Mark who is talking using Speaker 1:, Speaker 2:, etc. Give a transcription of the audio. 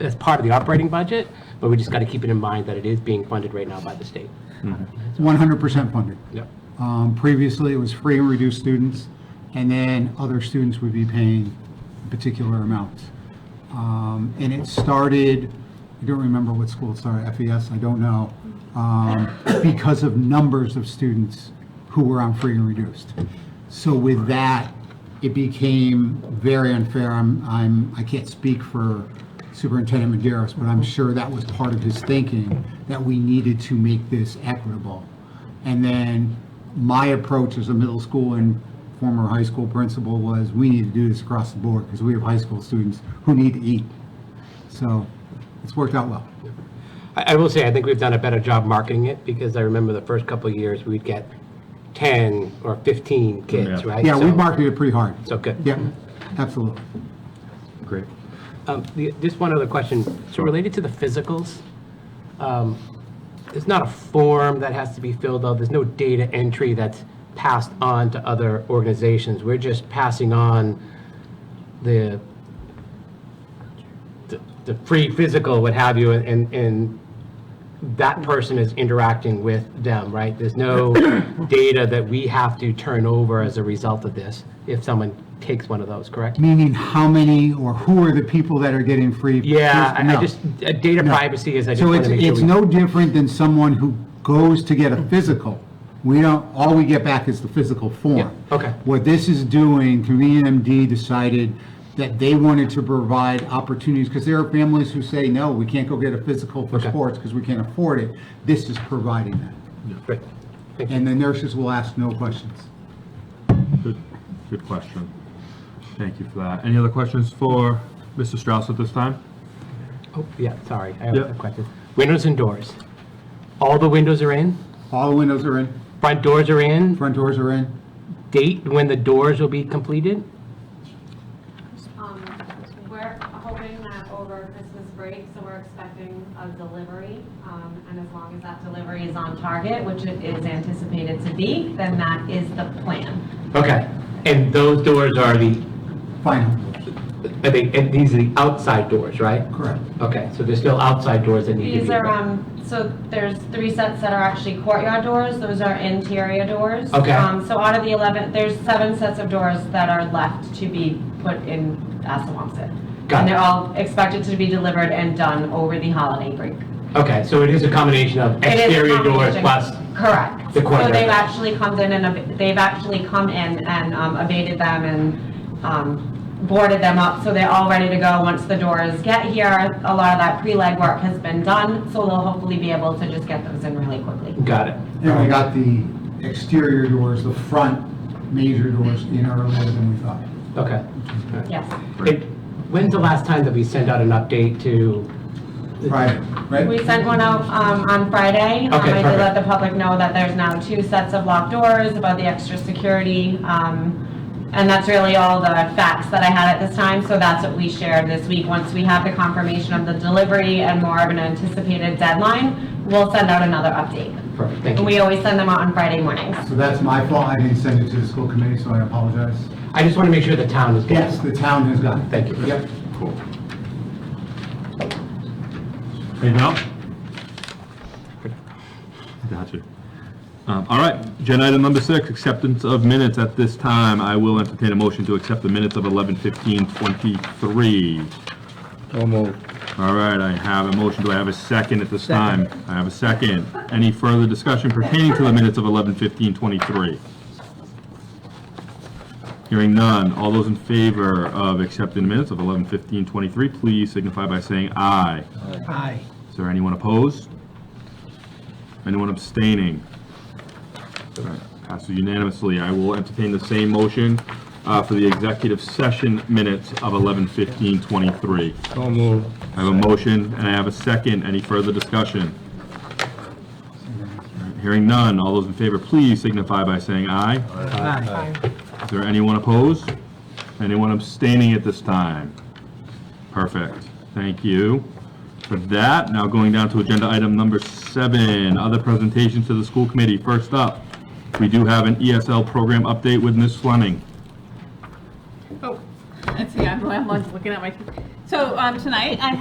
Speaker 1: as part of the operating budget, but we just got to keep it in mind that it is being funded right now by the state.
Speaker 2: 100% funded.
Speaker 1: Yep.
Speaker 2: Um, Previously, it was free and reduced students, and then other students would be paying particular amounts. Um, And it started, I don't remember what school it started, FES, I don't know, um, because of numbers of students who were on free and reduced. So with that, it became very unfair. I'm, I'm, I can't speak for Superintendent Maderos, but I'm sure that was part of his thinking, that we needed to make this equitable. And then my approach as a middle school and former high school principal was, we need to do this across the board because we have high school students who need to eat. So it's worked out well.
Speaker 1: I, I will say, I think we've done a better job marketing it, because I remember the first couple of years, we'd get 10 or 15 kids,
Speaker 3: Yeah.
Speaker 1: right?
Speaker 2: Yeah, we
Speaker 1: So-
Speaker 2: marketed it pretty hard.
Speaker 1: So good.
Speaker 2: Yeah, absolutely.
Speaker 3: Great.
Speaker 1: Um, the- Just one other question. So related to the physicals, um, it's not a form that has to be filled out. There's no data entry that's passed on to other organizations. We're just passing on the, the- the free physical, what have you, and, and that person is interacting with them, right? There's no data that we have to turn over as a result of this if someone takes one of those, correct?
Speaker 2: Meaning how many or who are the people that are getting free?
Speaker 1: Yeah, I-
Speaker 2: No.
Speaker 1: I just, uh, data privacy is, I just
Speaker 2: So
Speaker 1: want
Speaker 2: it's,
Speaker 1: to make sure.
Speaker 2: it's
Speaker 1: we-
Speaker 2: no different than someone who goes to get a physical. We don't, all we get back is the physical form.
Speaker 1: Yeah, okay.
Speaker 2: What this is doing, MD decided that they wanted to provide opportunities, because there are families who say, no, we can't go get a physical for
Speaker 1: Okay.
Speaker 2: sports because we can't afford it. This is providing that.
Speaker 1: Great. Thank you.
Speaker 2: And the nurses will ask no questions.
Speaker 3: Good, good question. Thank you for that. Any other questions for Mr. Strauss at this time?
Speaker 1: Oh, yeah, sorry, I have
Speaker 3: Yeah.
Speaker 1: a question. Windows and doors. All the windows are in,
Speaker 2: All the windows are in,
Speaker 1: front doors are in,
Speaker 2: front doors are in.
Speaker 1: date when the doors will be completed?
Speaker 4: Um, We're hoping that over Christmas break, so we're expecting a delivery. um, And as long as that delivery is on target, which it is anticipated to be, then that is the plan.
Speaker 1: Okay, and those doors are the,
Speaker 2: Final,
Speaker 1: I think, and these are the outside doors, right?
Speaker 2: correct.
Speaker 1: Okay, so there's still outside doors that need to be.
Speaker 4: These are, um, so there's three sets that are actually courtyard doors, those are interior doors.
Speaker 1: Okay.
Speaker 4: Um, So out of the 11, there's seven sets of doors that are left to be put in Assawamsett.
Speaker 1: Got
Speaker 4: And
Speaker 1: it.
Speaker 4: they're all expected to be delivered and done over the holiday break.
Speaker 1: Okay, so it is a combination of
Speaker 4: um, It is a
Speaker 1: exterior doors
Speaker 4: combination.
Speaker 1: plus,
Speaker 4: Correct.
Speaker 1: The
Speaker 4: So
Speaker 1: courtyard.
Speaker 4: they've actually come in and, ab- they've actually come in and um, abated them and um, boarded them up, so they're all ready to go once the doors get here. A lot of that pre-leg work has been done, so they'll hopefully be able to just get those in really quickly.
Speaker 1: got it.
Speaker 2: And we got the exterior doors, the front major doors in earlier than we thought.
Speaker 1: Okay. All right.
Speaker 4: Yes.
Speaker 1: It- When's the last time that we sent out an update to?
Speaker 2: Friday, right?
Speaker 4: We sent one out um, on Friday. Um,
Speaker 1: Okay,
Speaker 4: I did
Speaker 1: perfect.
Speaker 4: let the public know that there's now two sets of locked doors about the extra security. um, And that's really all the facts that I had at this time, so that's what we shared this week. Once we have the confirmation of the delivery and more of an anticipated deadline, we'll send out another update.
Speaker 1: Perfect, thank
Speaker 4: And
Speaker 1: you.
Speaker 4: we always send them out on Friday mornings.
Speaker 2: So that's my fault, I didn't send it to the school committee, so I apologize.
Speaker 1: I just want to make sure the town is getting.
Speaker 2: Yes, the town has got it.
Speaker 1: Thank you.
Speaker 2: Yep.
Speaker 3: Cool. Hey, now? Got you. Um, All right, agenda item number six, acceptance of minutes. At this time, I will entertain a motion to accept the minutes of 11:15:23.
Speaker 5: So moved.
Speaker 3: All right, I have a motion. Do I have a second at this time? I have a second. Any further discussion pertaining to the minutes of 11:15:23? Hearing none. All those in favor of accepting the minutes of 11:15:23, please signify by saying aye.
Speaker 2: Aye.
Speaker 3: Is there anyone opposed? Anyone abstaining? All right, Passes unanimously. I will entertain the same motion uh, for the executive session minutes of 11:15:23.
Speaker 5: So moved.
Speaker 3: I have a motion and I have a second. Any further discussion? Hearing none. All those in favor, please signify by saying aye. Is there anyone opposed? Anyone abstaining at this time? Perfect. Thank you for that. Now going down to agenda item number seven, other presentations to the school committee. First up, we do have an ESL program update with Ms. Fleming.
Speaker 6: Oh, let's see, I'm, I'm looking at my, so, um, tonight I